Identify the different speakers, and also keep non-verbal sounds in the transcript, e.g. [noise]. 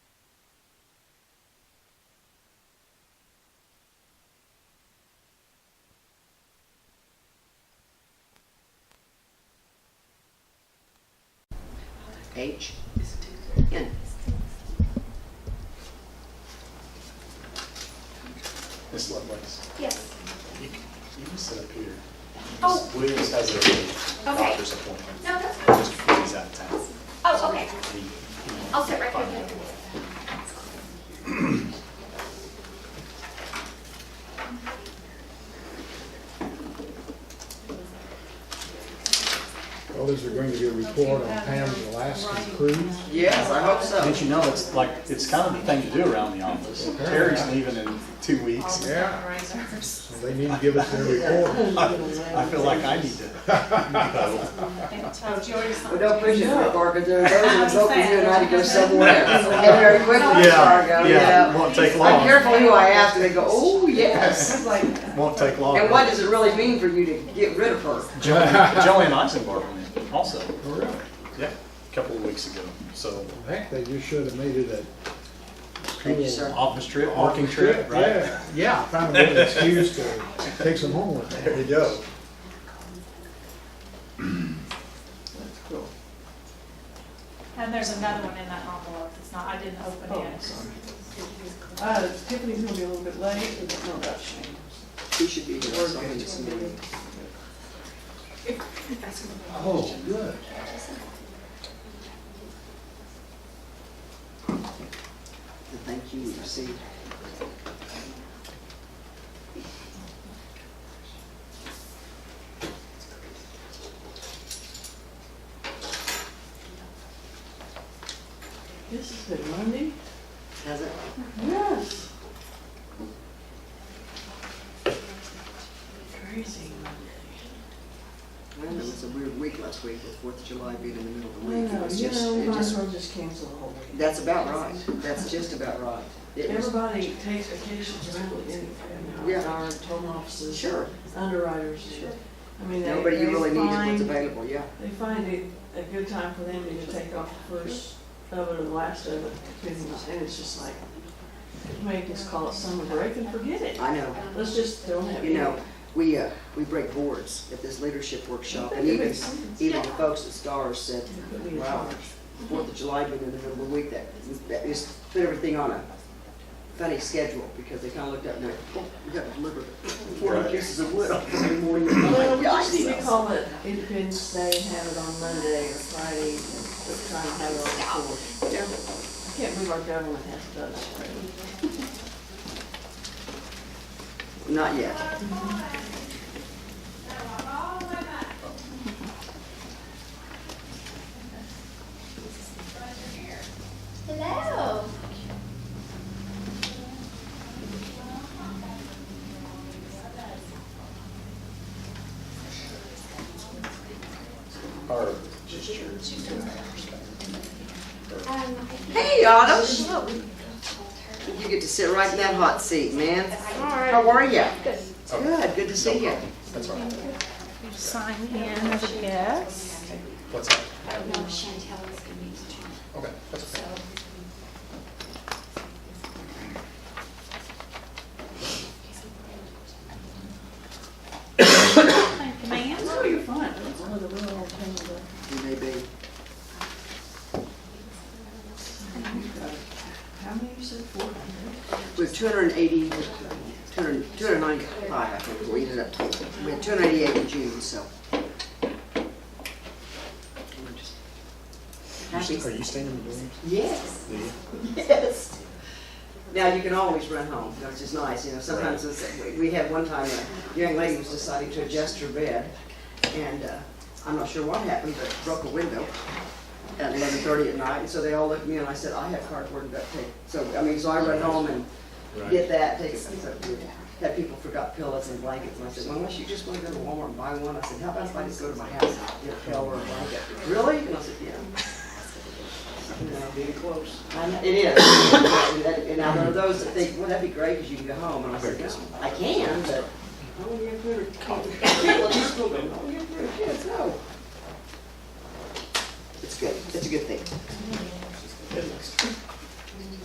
Speaker 1: page. Yeah.
Speaker 2: Ms. Lovelace,
Speaker 3: Yes.
Speaker 2: you you can sit up here.
Speaker 3: Oh.
Speaker 2: Ms. Williams has a doctor's appointment.
Speaker 3: No, that's fine.
Speaker 2: Mr. Free's out of town.
Speaker 3: Oh, okay.
Speaker 2: He- he-
Speaker 3: I'll sit right here.
Speaker 4: Well, is there going to be a report on Pam's Alaskan cruise?
Speaker 1: Yes, I hope so.
Speaker 2: Didn't you know, it's like, it's kind of the thing to do around the office. Terry's leaving in two weeks.
Speaker 4: Yeah. So they need to give us their report.
Speaker 2: [laughs] I feel like I need to.
Speaker 1: Well, don't push it too far, because there are those that's hoping you and I to go somewhere [laughs] else. They Get very
Speaker 2: [laughs]
Speaker 1: quickly, Fargo, you
Speaker 2: Yeah,
Speaker 1: know.
Speaker 2: won't take
Speaker 1: I'm
Speaker 2: long.
Speaker 1: careful who I ask, and they go, oh, yes.
Speaker 2: Won't take long.
Speaker 1: And what does it really mean for you to get rid of her?
Speaker 2: Joanne Joanne Eisenberg went in also,
Speaker 4: Oh, really?
Speaker 2: yeah, a couple of weeks ago. So,
Speaker 4: Heck, they just should have made it
Speaker 1: Thank you, sir.
Speaker 2: office trip,
Speaker 4: a.
Speaker 2: working trip, right?
Speaker 4: Yeah, yeah, find a good excuse to take some home with them.
Speaker 2: There you go.
Speaker 1: That's cool.
Speaker 5: And there's another one in that envelope, it's not, I didn't open
Speaker 6: Oh,
Speaker 5: it.
Speaker 6: sorry. Uh, Tiffany's gonna be a little bit late, but no rush.
Speaker 1: She should be here sometime this morning.
Speaker 4: Oh, good.
Speaker 1: The thank you we received.
Speaker 6: This has been Monday?
Speaker 1: Has it?
Speaker 6: Yes. Crazy Monday.
Speaker 1: Well, it was a weird week last week, with Fourth of July being in the middle of the
Speaker 6: I
Speaker 1: week. It
Speaker 6: know,
Speaker 1: was
Speaker 6: you
Speaker 1: just,
Speaker 6: know, we
Speaker 1: it
Speaker 6: might as
Speaker 1: just,
Speaker 6: well just cancel the whole week.
Speaker 1: that's about right. That's just about right. It was,
Speaker 6: Everybody takes vacations around the end of
Speaker 1: Yeah.
Speaker 6: our home offices.
Speaker 1: sure,
Speaker 6: Underwriters. I mean, they,
Speaker 1: nobody you really
Speaker 6: they
Speaker 1: need is what's
Speaker 6: find,
Speaker 1: available, yeah.
Speaker 6: they find it a good time for them to take off the first of it or the last of it. And it's just like, make us call it summer break and forget it.
Speaker 1: I know.
Speaker 6: Let's just don't have.
Speaker 1: You know, we, uh, we break boards at this leadership workshop, and even, even the folks at Stars said, wow, Fourth of July being in the middle of the week, that, that just put everything on a funny schedule, because they kinda looked up and they're, oh, we gotta deliver forty
Speaker 2: Right.
Speaker 1: pieces of wood on Monday morning. I'm like,
Speaker 6: Well, we just need to
Speaker 1: "Yikes."
Speaker 6: call it Independence Day and have it on Monday or Friday, but try and have it on the fourth. I can't believe our government has done that.
Speaker 1: Not yet.
Speaker 3: Hello.
Speaker 2: Or just yours.
Speaker 1: Hey, Autumn. You get to sit right in that hot seat, man. How are you? Good. Good, good to see you.
Speaker 2: That's all right.
Speaker 5: Sign in as a guest.
Speaker 2: What's up?
Speaker 7: No, Chantel is gonna be tomorrow.
Speaker 2: Okay, that's okay.
Speaker 5: Thank you, ma'am.
Speaker 6: Oh, you're fine. It's one of the real old things that-
Speaker 1: You may be.
Speaker 6: How many you said, four hundred?
Speaker 1: We have 280, 200 295, I think, we ended up total. We had 288 in June, so. We're just Happy.
Speaker 2: Are you staying in the building?
Speaker 1: Yes,
Speaker 2: Do you?
Speaker 1: yes. Now, you can always run home, which is nice, you know, sometimes it's, we- we had one time, a young lady was deciding to adjust her bed, and, uh, I'm not sure what happened, but broke a window at eleven thirty at night, and so they all looked at me and I said, I have cardboard and duct tape, so, I mean, so I run home and get that, take it, so, had people forgot pillows and blankets, and I said, well, unless you just wanna go to Walmart and buy one, I said, how about if I just go to my house and get a pillow or a blanket? Really? And I said, yeah. You know,
Speaker 6: Pretty close.
Speaker 1: I'm- It is. And that- And now there are those that think, well, that'd be great, 'cause you can go home. And I said, "No, I can, but. Oh, you're good. Oh, you're good, kids, no. It's good. It's a good thing.